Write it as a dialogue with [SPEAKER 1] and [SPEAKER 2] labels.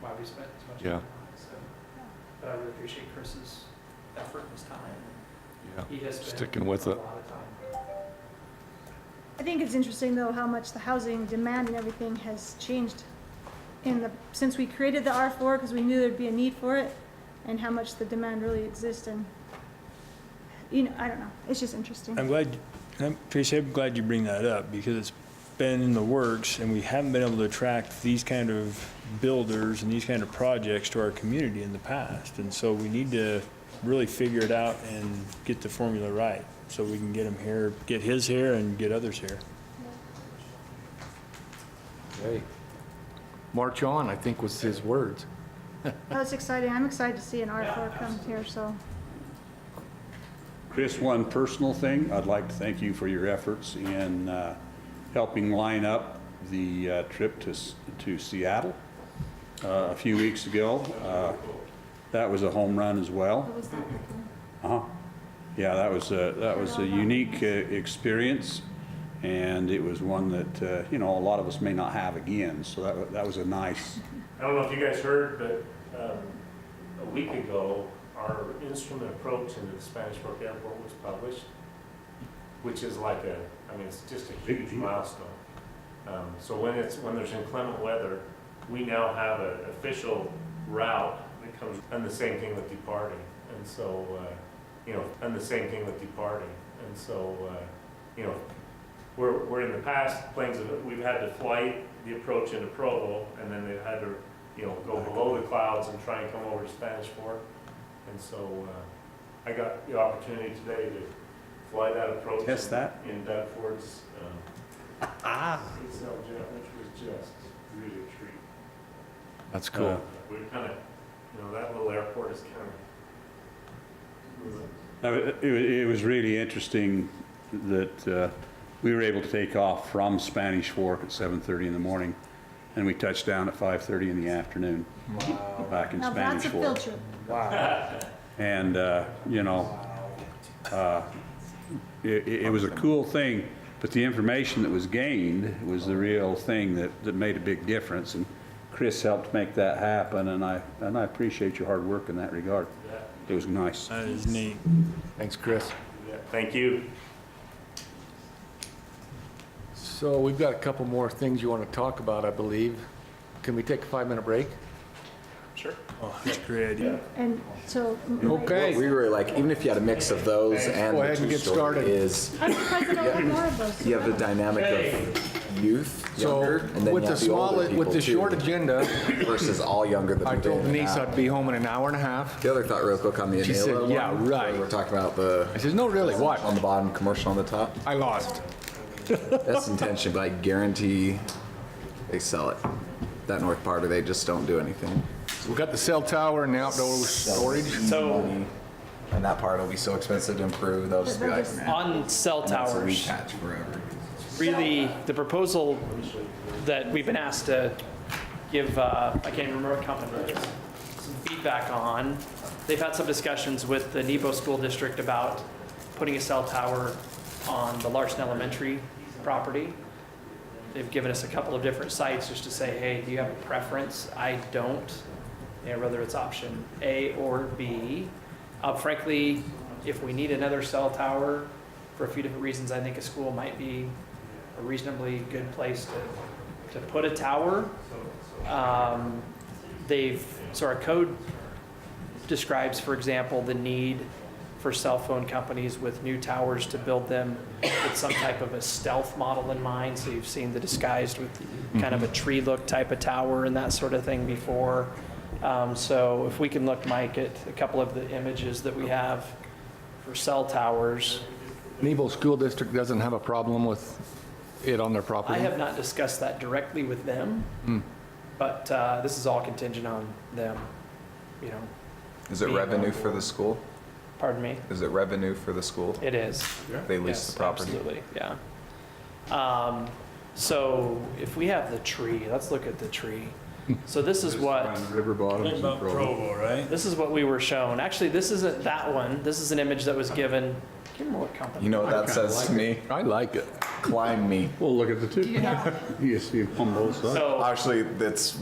[SPEAKER 1] why we spent as much
[SPEAKER 2] Yeah.
[SPEAKER 1] time on it, so. But I really appreciate Chris's effort and his time.
[SPEAKER 2] Yeah.
[SPEAKER 1] He has been.
[SPEAKER 2] Sticking with
[SPEAKER 1] a
[SPEAKER 2] it.
[SPEAKER 1] lot of time.
[SPEAKER 3] I think it's interesting though how much the housing demand and everything has changed in the, since we created the R four, because we knew there'd be a need for it, and how much the demand really exists and, you know, I don't know, it's just interesting.
[SPEAKER 4] I'm glad, I'm- Tracy, I'm glad you bring that up because it's been in the works and we haven't been able to attract these kind of builders and these kind of projects to our community in the past. And so we need to really figure it out and get the formula right so we can get them here, get his here and get others here.
[SPEAKER 2] Hey, March on, I think was his words.
[SPEAKER 3] Oh, it's exciting, I'm excited to see an R four come here, so,
[SPEAKER 5] Just one personal thing, I'd like to thank you for your efforts in uh, helping line up the uh, trip to S- to Seattle uh, a few weeks ago. Uh, That was a home run as well. Uh-huh. Yeah, that was, a- that was a unique uh, experience, and it was one that, uh, you know, a lot of us may not have again, so that wa- that was a nice,
[SPEAKER 6] I don't know if you guys heard, but um, a week ago, our instrument approach into the Spanish Fork Airport was published, which is like a, I mean, it's just a
[SPEAKER 5] Big
[SPEAKER 6] huge
[SPEAKER 5] deal.
[SPEAKER 6] milestone. Um, So when it's, when there's inclement weather, we now have an official route that comes, and the same thing with departing. And so, uh, you know, and the same thing with departing. And so, uh, you know, we're, we're in the past, planes, have- we've had to flight the approach into Provo, and then they've had to, you know, go below the clouds and try and come over to Spanish Fork. And so, uh, I got the opportunity today to fly that approach.
[SPEAKER 5] Test that? Ah.
[SPEAKER 6] In Dunford's, um, Excel jet, which was just really a treat.
[SPEAKER 2] That's
[SPEAKER 5] cool.
[SPEAKER 6] We We're kind of, you know, that little airport is kind of,
[SPEAKER 5] Uh, It wa- it was really interesting that uh, we were able to take off from Spanish Fork at 7:30 in the morning, and we touched down at 5:30 in the afternoon back in
[SPEAKER 3] now that's
[SPEAKER 5] Spanish
[SPEAKER 3] a
[SPEAKER 5] Fork.
[SPEAKER 3] field trip.
[SPEAKER 5] And, uh, you know, uh, it it- it was a cool thing, but the information that was gained was the real thing that that made a big difference. And Chris helped make that happen, and I and I appreciate your hard work in that regard. It was nice.
[SPEAKER 4] That is neat.
[SPEAKER 2] Thanks, Chris.
[SPEAKER 6] thank you.
[SPEAKER 2] So we've got a couple more things you want to talk about, I believe. Can we take a five-minute break?
[SPEAKER 4] Oh, that's a great idea.
[SPEAKER 3] And so.
[SPEAKER 2] Okay.
[SPEAKER 7] What we really like, even if you had a mix of those and
[SPEAKER 2] Go
[SPEAKER 7] the
[SPEAKER 2] ahead and get
[SPEAKER 7] two-story,
[SPEAKER 2] started.
[SPEAKER 7] is
[SPEAKER 3] I'm surprised they don't have more of those.
[SPEAKER 7] you have the dynamic of youth,
[SPEAKER 2] So
[SPEAKER 7] younger, and then you
[SPEAKER 2] with the
[SPEAKER 7] have the
[SPEAKER 2] small,
[SPEAKER 7] older people
[SPEAKER 2] with the
[SPEAKER 7] too,
[SPEAKER 2] short agenda,
[SPEAKER 7] versus all younger that
[SPEAKER 2] I
[SPEAKER 7] moved
[SPEAKER 2] told
[SPEAKER 7] in and
[SPEAKER 2] Denise
[SPEAKER 7] out.
[SPEAKER 2] I'd be home in an hour and a half.
[SPEAKER 7] The other thought, real quick, on the
[SPEAKER 2] She
[SPEAKER 7] Anela
[SPEAKER 2] said,
[SPEAKER 7] one,
[SPEAKER 2] "Yeah,
[SPEAKER 7] where
[SPEAKER 2] right."
[SPEAKER 7] We're talking about the
[SPEAKER 2] I says, no, really, what?
[SPEAKER 7] on the bottom, commercial on the top.
[SPEAKER 2] I lost.
[SPEAKER 7] That's intention, but I guarantee they sell it. That north part, or they just don't do anything.
[SPEAKER 2] We've got the cell tower and the outdoor storage.
[SPEAKER 8] So
[SPEAKER 7] And that part will be so expensive to improve. They'll just be like, man,
[SPEAKER 8] on cell
[SPEAKER 7] that's a
[SPEAKER 8] towers,
[SPEAKER 7] retouch forever.
[SPEAKER 8] really, the proposal that we've been asked to give, uh, I can't even remember what company it is, some feedback on, they've had some discussions with the Nebo School District about putting a cell tower on the Larson Elementary property. They've given us a couple of different sites just to say, hey, do you have a preference? I don't. You know, whether it's option A or B. Uh, frankly, if we need another cell tower, for a few different reasons, I think a school might be a reasonably good place to, to put a tower. Um, they've, so our code describes, for example, the need for cell phone companies with new towers to build them with some type of a stealth model in mind. So you've seen the disguised with kind of a tree look type of tower and that sort of thing before. Um, so if we can look, Mike, at a couple of the images that we have for cell towers.
[SPEAKER 2] Nebo School District doesn't have a problem with it on their
[SPEAKER 8] I
[SPEAKER 2] property?
[SPEAKER 8] have not discussed that directly with them,
[SPEAKER 7] Hmm.
[SPEAKER 8] but uh, this is all contingent on them, you know,
[SPEAKER 7] Is it
[SPEAKER 8] Being
[SPEAKER 7] revenue
[SPEAKER 8] on
[SPEAKER 7] for the school?
[SPEAKER 8] pardon me,
[SPEAKER 7] Is it revenue for the school?
[SPEAKER 8] it is.
[SPEAKER 7] They lease
[SPEAKER 8] Yes,
[SPEAKER 7] the property?
[SPEAKER 8] Absolutely, yeah. Um, So if we have the tree, let's look at the tree. So this is what,
[SPEAKER 7] River bottoms and
[SPEAKER 4] Provo, right?
[SPEAKER 8] this is what we were shown. Actually, this isn't that one. This is an image that was given, I can't remember what company.
[SPEAKER 7] You know what that says to me?
[SPEAKER 2] I like it.
[SPEAKER 7] Climb me.
[SPEAKER 5] Well, look at the two. You see them on both sides.
[SPEAKER 8] So
[SPEAKER 7] Actually, that's